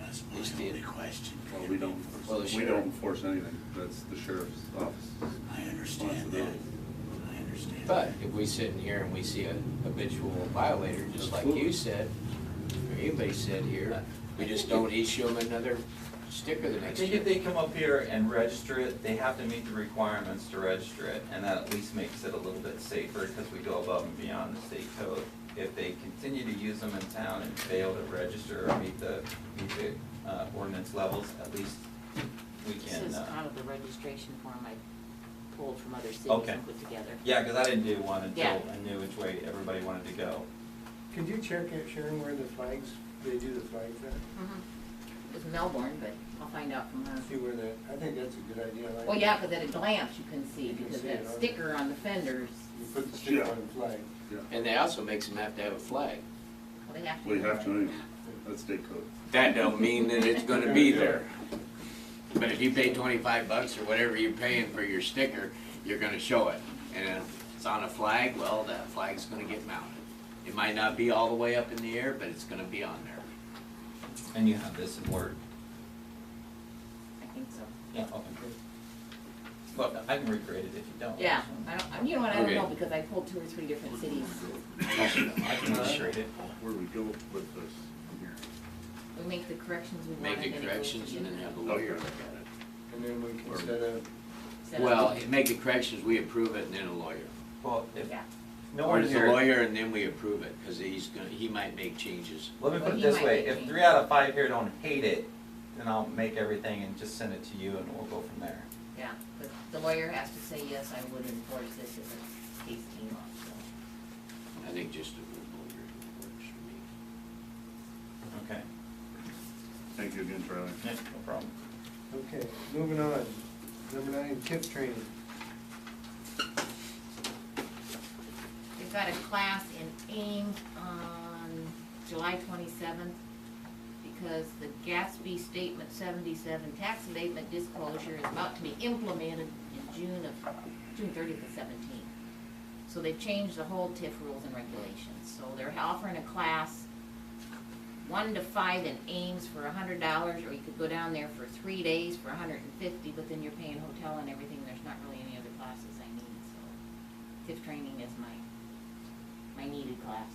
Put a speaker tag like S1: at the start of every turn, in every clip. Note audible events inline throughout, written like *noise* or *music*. S1: That's
S2: was
S1: my
S2: the-
S1: only question.
S3: Well, we don't,
S2: Well, the
S3: we don't
S2: sheriff-
S3: enforce anything, that's the sheriff's office.
S1: I understand that.
S3: Responsibility.
S1: I understand.
S2: But if we sit in here and we see a habitual violator, just like you
S3: Absolutely.
S2: said, or anybody said here, we just don't issue them another sticker the
S4: I
S2: next
S4: think if
S2: year.
S4: they come up here and register it, they have to meet the requirements to register it, and that at least makes it a little bit safer, because we go above and beyond the state code. If they continue to use them in town and fail to register or meet the, meet the uh, ordinance levels, at least we
S5: This
S4: can,
S5: is
S4: uh,
S5: out of the registration form I pulled from other cities
S4: Okay.
S5: and put together.
S4: yeah, because I didn't do one
S5: Yeah.
S4: until I knew which way everybody wanted to go.
S6: Could you check it, Sharon, where the flags, they do the flags at?
S5: Mhm. It was Melbourne, but I'll find out from her.
S6: See where that, I think that's a good idea. I like
S5: Well,
S6: it.
S5: yeah, because at a glance you can see,
S6: You can
S5: because
S6: see it,
S5: that
S6: huh?
S5: sticker on the fenders,
S6: You put the sticker
S3: Yeah.
S6: on the flag.
S3: Yeah,
S2: And they also makes them have to have a flag.
S5: well, they have to.
S3: we
S5: know
S3: have to,
S5: that.
S3: anyway. that's state code.
S2: That don't mean that it's gonna be there. But if you pay twenty-five bucks or whatever you're paying for your sticker, you're gonna show it. And if it's on a flag, well, that flag's gonna get mounted. It might not be all the way up in the air, but it's gonna be on there.
S4: And you have this in Word.
S5: I think so.
S4: Yeah, okay. Look, I can recreate it if you don't.
S5: Yeah, I don't, I- you know what, I don't
S2: Okay.
S5: know, because I pulled two or three different cities.
S4: I can recreate it.
S3: Where we go with this here.
S5: We make the corrections we want.
S2: Make the
S5: and then it goes
S2: corrections and then
S5: to
S2: have the
S5: you.
S2: lawyer look at it.
S6: And then we can
S3: Or-
S6: set up,
S5: Set up.
S2: Well, it- make the corrections, we approve it, and then a lawyer.
S4: Well, if,
S5: Yeah.
S4: no
S2: Or
S4: one
S2: it's a
S4: here.
S2: lawyer, and then we approve it, because he's gonna, he might make changes.
S4: Let me
S5: Well,
S4: put it
S5: he
S4: this
S5: might
S4: way,
S5: be
S4: if
S5: king.
S4: three out of five here don't hate it, then I'll make everything and just send it to you and we'll go from there.
S5: Yeah, but the lawyer has to say, yes, I would enforce this as a case team law, so.
S2: I think just a little lawyer works for
S4: Okay.
S3: Thank you again, Charlie.
S4: No problem.
S6: okay, moving on. Number nine, tip training.
S5: We've got a class in Ames on July twenty-seventh because the Gatsby Statement seventy-seven tax abatement disclosure is about to be implemented in June of, June thirtieth to seventeenth. So they've changed the whole TIF rules and regulations, so they're offering a class one to five in Ames for a hundred dollars, or you could go down there for three days for a hundred and fifty, but then you're paying hotel and everything, there's not really any other classes I need, so. TIF training is my, my needed class,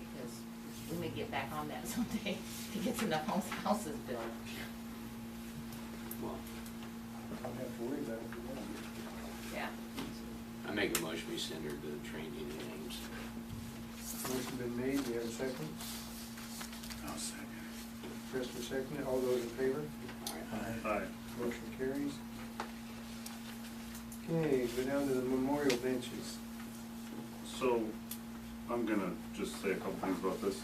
S5: because we may get back on that *laughs* someday to get some of those houses built.
S2: me. Well,
S6: I don't have to worry about it. if we don't.
S5: Yeah.
S2: I make a motion, we send her the training names.
S6: Motion been made, we have a second.
S1: I'll second.
S6: Christopher second, all those in favor?
S3: Aye.
S6: Motion carries. Okay, go down to the memorial benches.
S3: So, I'm gonna just say a couple things about this.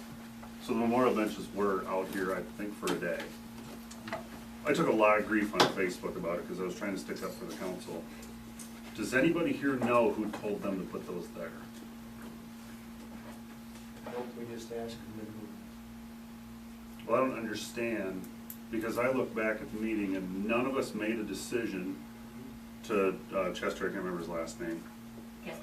S3: So the memorial benches were out here, I think, for a day. I took a lot of grief on Facebook about it, because I was trying to stick up for the council. Does anybody here know who told them to put those there?
S6: Hope we just ask them to
S3: Well, I don't understand, because I look back at the meeting and none of us made a decision to, uh, Chester, I can't remember his last name,
S5: Yes,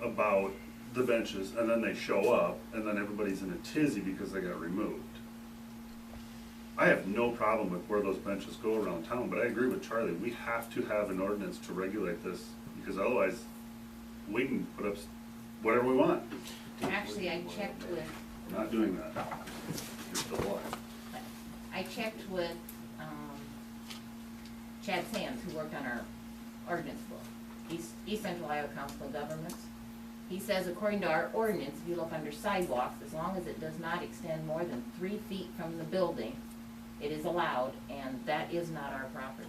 S5: Colin?
S3: about the benches, and then they show up, and then everybody's in a tizzy because they got removed. I have no problem with where those benches go around town, but I agree with Charlie, we have to have an ordinance to regulate this, because otherwise, we can put up s- whatever we want.
S5: Actually, I checked with
S3: We're not doing that. You're still alive.
S5: I checked with, um, Chad Sands, who worked on our ordinance book, East, East Central Iowa Council of Governments. He says according to our ordinance, if you look under sidewalks, as long as it does not extend more than three feet from the building, it is allowed, and that is not our property.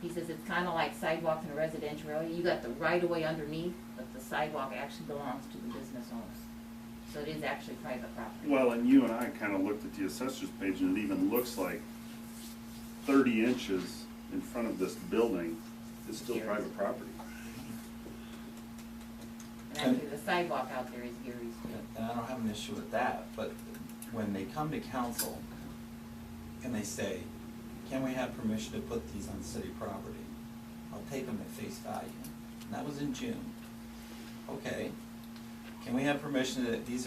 S5: He says it's kinda like sidewalks in a residential area, you got the right of way underneath, but the sidewalk actually belongs to the business owners. So it is actually private property.
S3: Well, and you and I kind of looked at the assessor's page, and it even looks like thirty inches in front of this building is still private property.
S5: And actually, the sidewalk out there is Gary's.
S4: And I don't have an issue with that, but when they come to council and they say, can we have permission to put these on city property? I'll take them at face value. And that was in June. Okay. Can we have permission that these are